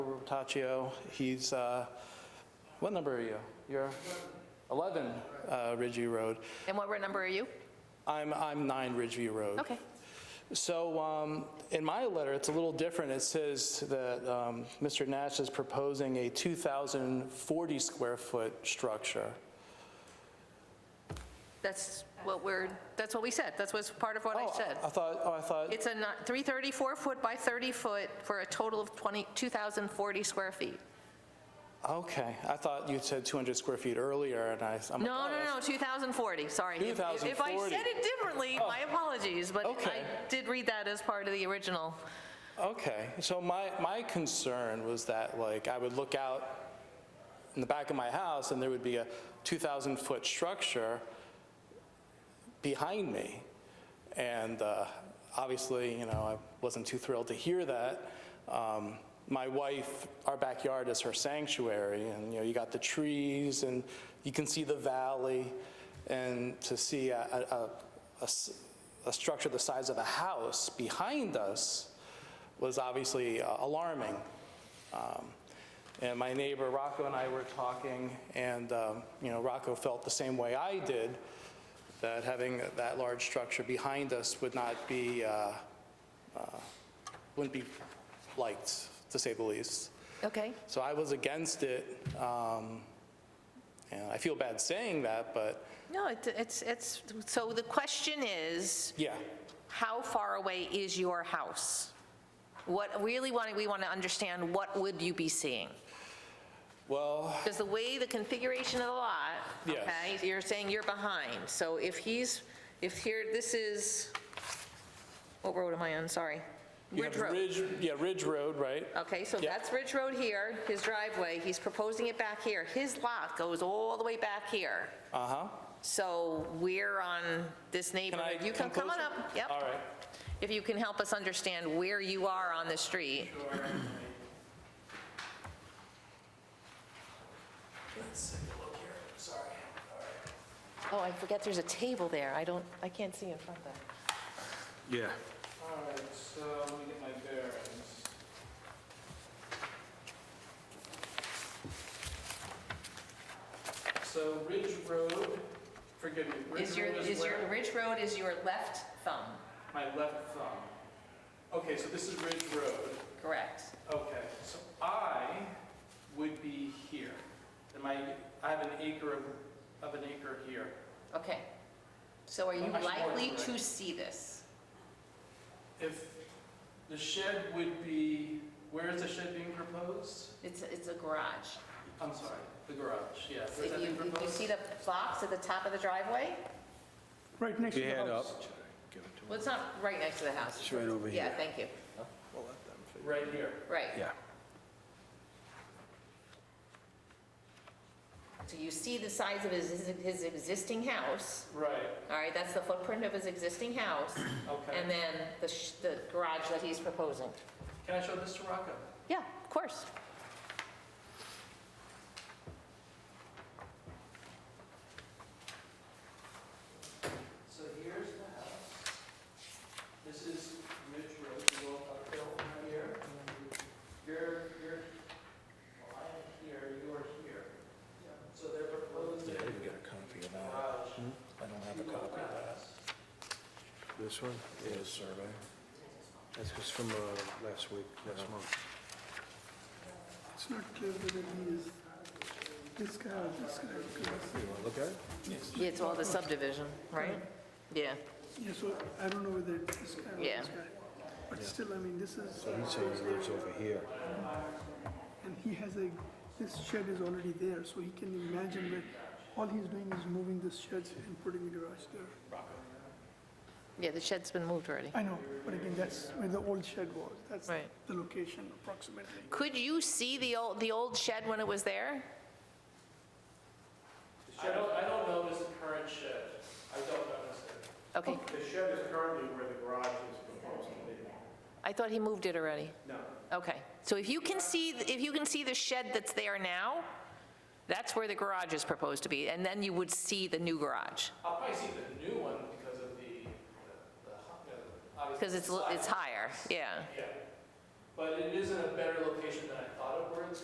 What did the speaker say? Bertaccio. He's, uh, what number are you? You're 11 uh, Ridgeview Road. And what number are you? I'm, I'm 9 Ridgeview Road. Okay. So um, in my letter, it's a little different. It says that um, Mr. Nash is proposing a 2,040 square foot structure. That's what we're, that's what we said. That's what's part of what I Oh, said. I thought, oh, I thought, It's a not- 334 foot by 30 foot for a total of 20 2,040 square feet. okay. I thought you said 200 square feet earlier and I, I'm like, No, oh, no, no, 2,040, sorry. If- If I 2,040. said it differently, my apologies, but I Okay. did read that as part of the original. Okay, so my, my concern was that, like, I would look out in the back of my house, and there would be a 2,000-foot structure behind me. And uh, obviously, you know, I wasn't too thrilled to hear that. Um, My wife, our backyard is her sanctuary, and, you know, you got the trees, and you can see the valley, and to see a, a- a- a s- a structure the size of a house behind us was obviously uh, alarming. Um, And my neighbor Rocco and I were talking, and, um, you know, Rocco felt the same way I did, that having that large structure behind us would not be, uh, uh, wouldn't be liked, to say the least. Okay. So I was against it, um, and I feel bad saying that, but, No, it- it's, it's, so the question is, yeah, how far away is your house? What, really, want we want to understand, what would you be seeing? well, Because the way the configuration of the lot, Yes. okay, you're saying you're behind. So if he's, if here, this is, what road am I on? Sorry. you Ridge have Road. Uh, Ridge, yeah, Ridge Road, right? Okay, so Yeah. that's Ridge Road here, his driveway, he's proposing it back here. His lot goes all the way back here. Uh-huh. So we're on this Can I neighborhood. You can come on closer? up, All yep. right. If you can help us understand where you are on the street. Oh, I forget there's a table there. I don't, I can't see in front of that. Yeah. All right, so let me get my bearings. So Ridge Road, forgive me, Ridge Is your, Road is is your, where? Ridge Road is your left thumb, My left thumb. Okay, so this is Ridge Road. correct? Okay, so I would be here. And my, I have an acre of, of an acre here. Okay. So are you Actually, more likely to correct. see this? If the shed would be, where is the shed being proposed? It's, it's a garage. I'm sorry, the garage, yeah. Where's If that you, being if you proposed? see the box at the top of the driveway, Right next to Your the hand house. up. well, it's not right next to the house. It's right over Yeah, here. thank you. Right here. Right. Yeah. So you see the size of his, his existing house, Right, all right? That's the footprint of his existing house, and okay. then the, sh- the garage that he's proposing. Can I show this to Rocco? Yeah, of course. So here's the house. This is Ridge Road, you go uphill from here. You're, you're, well, I am here, you are here. So they're proposing I didn't get a copy of that. garage I don't have to a go copy. past. This one? Yeah, the survey. That's just from uh, last week, last month. It's not clear that he is, this guy, or this guy, because, You want to look at it? Yeah, it's all the subdivision, right? Yeah, yeah, so I don't know whether it's this guy or Yeah. this guy. But still, I mean, this is, He says he lives over here. and he has a, this shed is already there, so he can imagine that all he's doing is moving this shed and putting the garage there. yeah, the shed's been moved already. I know, but again, that's where the old shed was. That's Right. the location approximately. Could you see the old, the old shed when it was there? I don't, I don't know this current shed. I don't know this. Okay, The shed is currently where the garage is proposed to be. I thought he moved it already. No. Okay, so if you can see, if you can see the shed that's there now, that's where the garage is proposed to be, and then you would see the new garage, I'll probably see the new one because of the, the- the, you know, obviously. because it's, the it's size. higher, yeah. Yeah, but it is in a better location than I thought it